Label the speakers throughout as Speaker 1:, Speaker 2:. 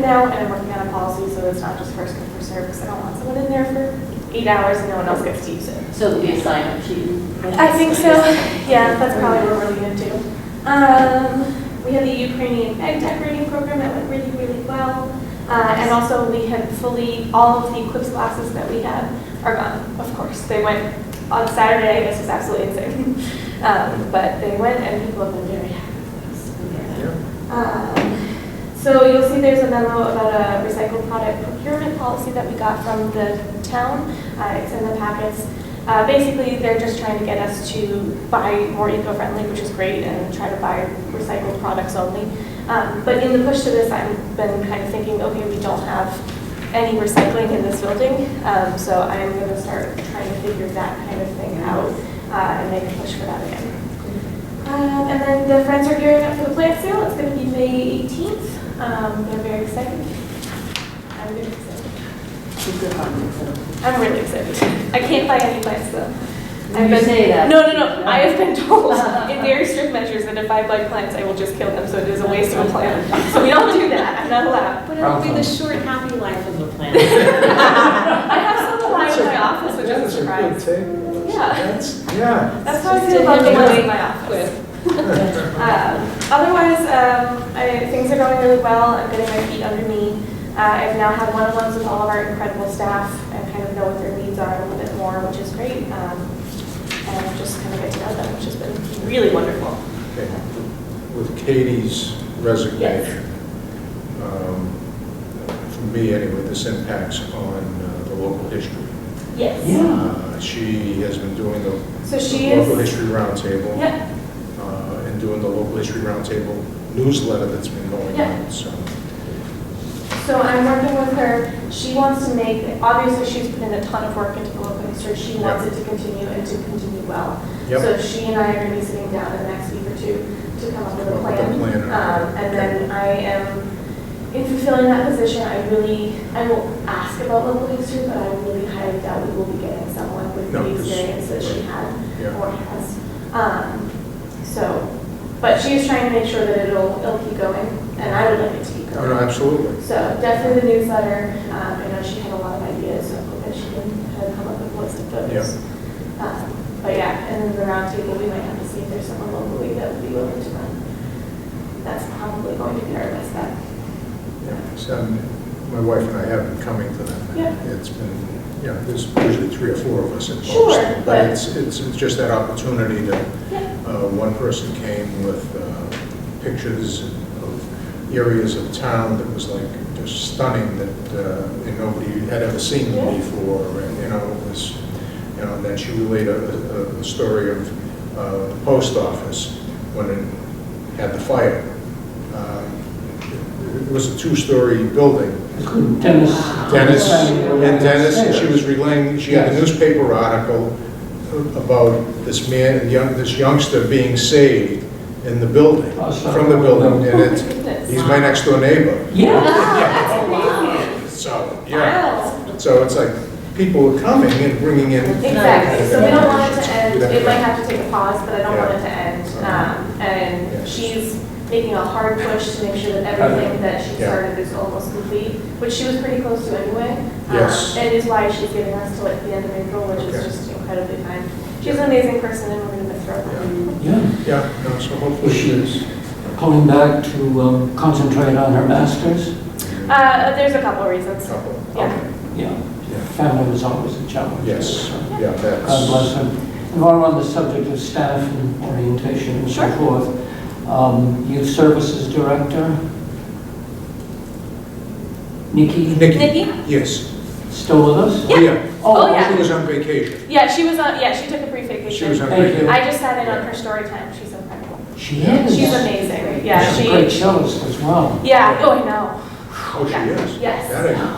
Speaker 1: now, and I'm working on a policy, so it's not just first come, first served, because I don't want someone in there for eight hours and no one else gets to use it.
Speaker 2: So it'll be a sign up sheet.
Speaker 1: I think so, yeah, that's probably what we're gonna do. Um, we had the Ukrainian egg decorating program that went really, really well. Uh, and also we had fully, all of the Eclipse glasses that we had are gone, of course. They went on Saturday, this was absolutely insane. Um, but they went and people have been very happy with those. Um, So you'll see there's a memo about a recycled product procurement policy that we got from the town. Uh, It's in the packets. Uh, Basically, they're just trying to get us to buy more eco-friendly, which is great, and try to buy recycled products only. Um, But in the push to this, I've been kind of thinking, okay, we don't have any recycling in this building, Um, so I'm going to start trying to figure that kind of thing out uh, and make a push for that again. Um, and then the friends are gearing up for the plant sale. It's going to be May 18th. Um, they're very excited. I'm very excited.
Speaker 2: She's good on it, so.
Speaker 1: I'm really excited. I can't buy any plants though. I've
Speaker 2: You
Speaker 1: been-
Speaker 2: say that.
Speaker 1: No,
Speaker 2: Uh-huh.
Speaker 1: no, no. I have been told in very strict measures that if I buy plants, I will just kill them. So it is a waste of a plant. So we don't do that. I'm not allowed.
Speaker 3: But it'll be the short, happy life of the planet.
Speaker 1: I have some alive in my office, which is a surprise. Yeah.
Speaker 4: Yeah.
Speaker 1: That's how I feel about the ones in my office. Um, Otherwise, um, I- things are going really well. I'm getting my feet under me. Uh, I've now had one-on-ones with all of our incredible staff and kind of know what their needs are a little bit more, which is great. Um, And I've just kind of get to know them, which has been really wonderful.
Speaker 4: Okay. With Katie's resignation, um, for me anyway, this impacts on uh, the local history.
Speaker 1: Yes.
Speaker 2: Yeah.
Speaker 4: Uh, She has been doing the
Speaker 1: So she
Speaker 4: the local
Speaker 1: is,
Speaker 4: history roundtable.
Speaker 1: yeah,
Speaker 4: uh, And doing the local history roundtable newsletter that's been going
Speaker 1: Yeah.
Speaker 4: on, so.
Speaker 1: so I'm working with her. She wants to make, obviously, she's put in a ton of work into the local history. She wants it to continue and to continue well.
Speaker 4: Yep.
Speaker 1: So she and I are going to be sitting down in the next week or two to come up with a
Speaker 4: Come up with a
Speaker 1: plan.
Speaker 4: plan,
Speaker 1: Um, And then I am, in fulfilling that position, I really, I will ask about local history, but I really highly doubt we will be getting someone with
Speaker 4: No,
Speaker 1: the
Speaker 4: 'cause-
Speaker 1: experience that she had
Speaker 4: Yeah.
Speaker 1: or has. Um, So, but she is trying to make sure that it'll, it'll keep going, and I would like it to keep
Speaker 4: Oh, no,
Speaker 1: going.
Speaker 4: Absolutely.
Speaker 1: So definitely the newsletter, um, I know she had a lot of ideas, so I hope that she can kind of come up with what's of those. Um, But yeah, and then the roundtable, we might have to see if there's someone locally that would be willing to run. That's probably going to be our best bet.
Speaker 4: Yeah, so, um, My wife and I have been coming to them.
Speaker 1: Yeah.
Speaker 4: It's been, you know, there's usually three or four of us involved.
Speaker 1: Sure, but-
Speaker 4: it's, it's it's just that opportunity to,
Speaker 1: Yeah.
Speaker 4: uh, one person came with uh, pictures of areas of town that was like just stunning that, uh, and nobody had ever seen
Speaker 1: Yeah.
Speaker 4: them before, and, you know, it was, you know, and then she relayed a, a- a story of uh, the post office when it had the fire. Um, It it was a two-story building,
Speaker 5: Dennis.
Speaker 4: Dennis, and Dennis, and she was relaying, she had a newspaper article about this man, young, this youngster being saved in the building,
Speaker 5: Oh,
Speaker 4: from the building, and it's,
Speaker 1: Goodness.
Speaker 4: he's my next door neighbor,
Speaker 5: Yeah.
Speaker 4: so, yeah.
Speaker 1: Wow.
Speaker 4: So it's like, people are coming and bringing in.
Speaker 1: Exactly, so we don't want it to end, it might
Speaker 4: Yeah.
Speaker 1: have to take a pause, but I don't want it to end. Um,
Speaker 4: Yeah.
Speaker 1: And she's making a hard push to make sure that everything that she
Speaker 4: Yeah.
Speaker 1: started is almost complete, which she was pretty close to anyway. Um,
Speaker 4: Yes.
Speaker 1: And is why she's giving us till like the end of April, which is
Speaker 4: Okay.
Speaker 1: just incredibly kind. She's an amazing person and we're gonna miss her.
Speaker 5: Yeah,
Speaker 4: Yeah, no, so hopefully
Speaker 5: she's
Speaker 4: she's,
Speaker 5: going back to um, concentrate on her masters.
Speaker 1: Uh, there's a couple reasons.
Speaker 4: couple,
Speaker 1: Yeah.
Speaker 5: Yeah,
Speaker 4: Yeah.
Speaker 5: family was always a challenge.
Speaker 4: yes,
Speaker 5: So,
Speaker 4: yeah, that's.
Speaker 5: God bless her. And while we're on the subject of staff and orientation and so
Speaker 1: Sure.
Speaker 5: forth, um, Youth Services Director, Nikki,
Speaker 4: Nikki,
Speaker 1: Nikki?
Speaker 4: yes.
Speaker 5: still with us?
Speaker 1: Yeah. Oh, yeah.
Speaker 4: She was on vacation,
Speaker 1: Yeah, she was on, yeah, she took a brief
Speaker 4: she was
Speaker 1: vacation.
Speaker 4: on
Speaker 5: Thank you.
Speaker 4: vacation.
Speaker 1: I just sat in on her story time, she's incredible.
Speaker 5: She is.
Speaker 1: She's amazing, yeah,
Speaker 5: She's a
Speaker 1: she,
Speaker 5: great cellist as well.
Speaker 1: yeah, oh, I know,
Speaker 4: Oh, she
Speaker 1: Yeah.
Speaker 4: is?
Speaker 1: Yes.
Speaker 4: That I didn't know.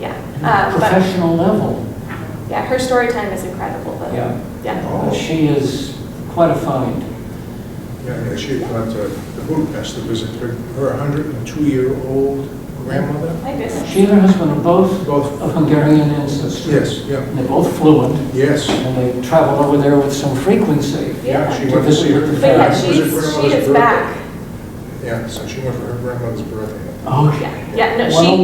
Speaker 1: yeah. Um, But,
Speaker 5: Professional level,
Speaker 1: yeah, her story time is incredible, though.
Speaker 5: yeah.
Speaker 1: Yeah,
Speaker 5: Uh,
Speaker 4: Oh,
Speaker 5: She is quite a find.
Speaker 4: yeah, yeah, she had gone to the Budapest to visit her, her 102-year-old grandmother,
Speaker 1: my goodness.
Speaker 5: She and her husband are both
Speaker 4: both,
Speaker 5: of Hungarian ancestry.
Speaker 4: yes, yeah,
Speaker 5: And They're both fluent,
Speaker 4: yes,
Speaker 5: and they travel over there with some frequency.
Speaker 4: yeah, she
Speaker 5: To
Speaker 4: went to
Speaker 5: visit
Speaker 4: see her.
Speaker 5: with her
Speaker 1: But yeah,
Speaker 5: It was
Speaker 4: visit
Speaker 1: she's,
Speaker 4: her
Speaker 1: she
Speaker 4: grandmother's
Speaker 1: is
Speaker 4: birthday.
Speaker 1: back.
Speaker 4: Yeah, so she went for her grandmother's birthday.
Speaker 5: Okay.
Speaker 1: Oh, Yeah, yeah, no,
Speaker 5: Well,
Speaker 1: she,